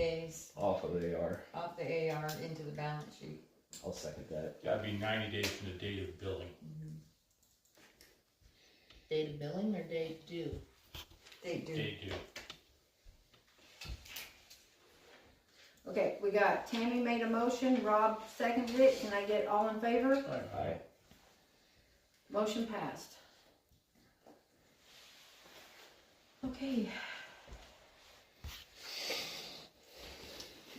days off of AR. off the AR into the balance sheet. I'll second that. Gotta be ninety days from the date of billing. Date of billing or date due? They do. Date due. Okay, we got Tammy made a motion, Rob seconded it, can I get all in favor? Aye. Motion passed. Okay.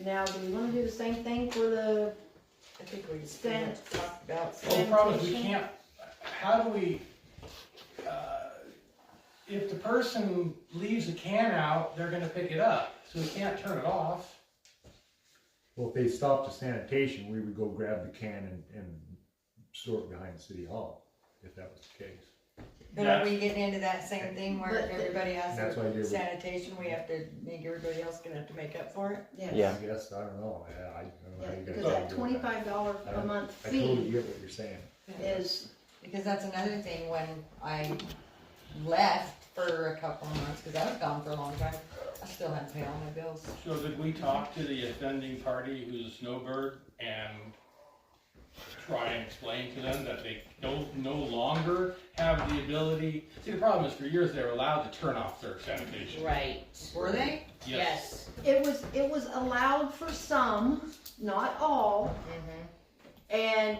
Now, do we wanna do the same thing for the, I think we just pretty much talked about. Well, the problem is we Sanitation. can't, how do we, uh, if the person leaves a can out, they're gonna pick it up, so we can't turn it off. Well, if they stopped the sanitation, we would go grab the can and, and store it behind City Hall, if that was the case. But are we getting into that same thing where But if the- everybody has That's why their you're- sanitation, we have to, think everybody else gonna have to make up for it? yes. Yeah. I guess, I don't know, I, I don't know how you guys. Cause feel that about that. twenty-five dollar I a don't- month I totally fee get what you're saying. is, Because that's another thing, when I left for a couple of months, cause I was gone for a long time, I still had to pay all my bills. so did we talk to the offending party who's a snowbird and try and explain to them that they don't, no longer have the ability? See, the problem is for years they were allowed to turn off their sanitation. Right. Were they? Yes. it was, it was allowed for some, not all, Mm-hmm. And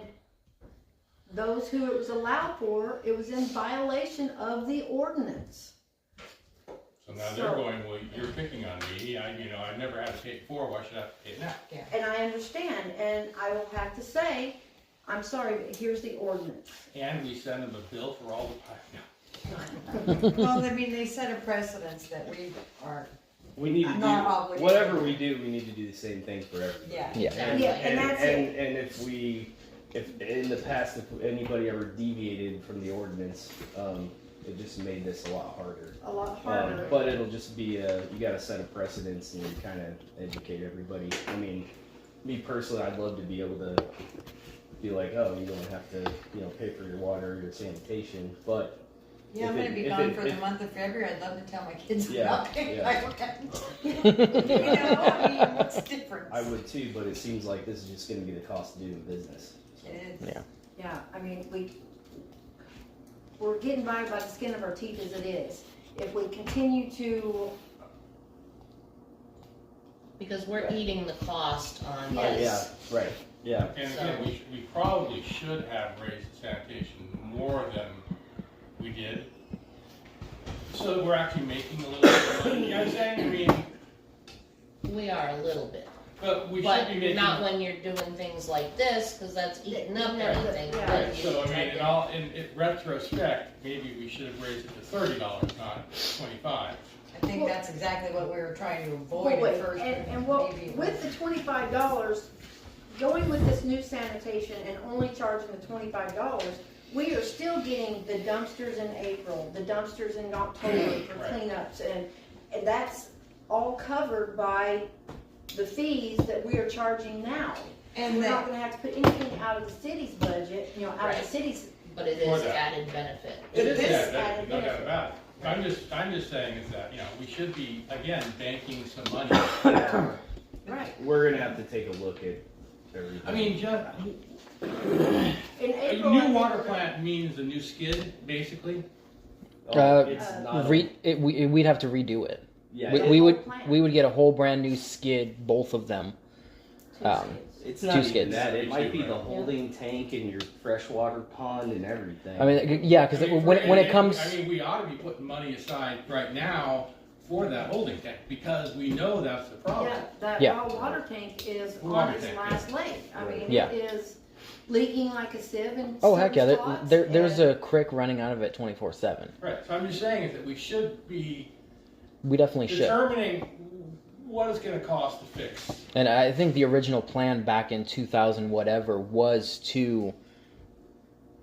those who it was allowed for, it was in violation of the ordinance. So now they're So- going, well, you're picking on me, I, you know, I've never had to pay it before, why should I have to pay it now? And I understand, and I will have to say, I'm sorry, but here's the ordinance. And we send them a bill for all the, no. Well, I mean, they set a precedence that we are, We need to Not obligated. do, whatever we do, we need to do the same thing for everybody. yeah. Yeah, Exactly. and that's it. And, and if we, if in the past, if anybody ever deviated from the ordinance, um, it just made this a lot harder. A lot Oh, Um, harder. but it'll just be a, you gotta set a precedence and kind of educate everybody. I mean, me personally, I'd love to be able to be like, oh, you don't have to, you know, pay for your water, your sanitation, but Yeah, I'm If gonna it- be if gone it- for the if- month of February, I'd love to tell my kids Yeah, about it. yeah. I don't- You know, I mean, what's the difference? I would too, but it seems like this is just gonna be the cost of doing business. It is. Yeah. Yeah, I mean, we, we're getting by by the skin of our teeth as it is. If we continue to, Because we're eating the cost on Yes. Yeah, this. right, yeah. And again, we, sh- we probably should have raised the sanitation more than we did. So that we're actually making a little bit of money, you know what I'm saying? I mean, We are a little bit. but we should But be making. not when you're doing things like this, cause that's eating up Yeah, everything. yeah. But you So I mean, take in it- all, in, in retrospect, maybe we should have raised it to thirty dollars, not twenty-five. I think Well- that's exactly what we were trying to avoid wait, at first. and, but and what, maybe it with the twenty-five dollars, going with this new sanitation and only charging the twenty-five dollars, we are still getting the dumpsters in April, the dumpsters in October for Right. cleanups, and, and that's all covered by the fees that we are charging now. And We're not that, gonna have to put anything out of the city's budget, you know, out of Right. the city's, But it For is that. added benefit. It is Yeah, added that- No doubt benefit. about it. I'm just, I'm just saying is that, you know, we should be, again, banking some money. right, We're gonna have to take a look at everything. I mean, just, in a April. I new think water we're- plant means a new skid, basically. Oh, Uh, it's Uh, not a- Re- it, we, it- we'd have to redo it. yeah, We, it- we whole would plant. we would get a whole brand new skid, both of them. Two um, states. it's two not even skids. that. It might be Yeah. the holding tank and your freshwater pond and everything. I mean, yeah, because I mean, when for- it, when and- it and- comes, I mean, we ought to be putting money aside right now for that holding tank, because we know that's the problem. Yeah, that Yeah. raw water tank is on Water its tank, last leg. I mean, Yeah. it is leaking like a sieve in oh some heck yeah, there, spots, there there's and- a creek running out of it twenty four seven. Right, so I'm just saying is that we should be We definitely should. determining what it's gonna cost to fix. And I think the original plan back in 2000 whatever was to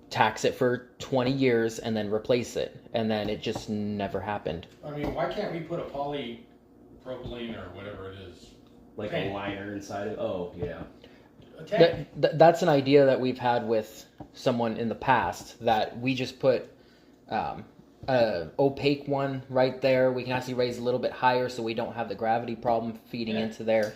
tax it for 20 years and then replace it and then it just never happened. I mean, why can't we put a polypropylene or whatever it is? like Okay. a liner inside of. Oh yeah, A tank, That, that that's an idea that we've had with someone in the past that we just put um, uh, opaque one right there. We can actually raise a little bit higher so we don't have the gravity problem feeding into there.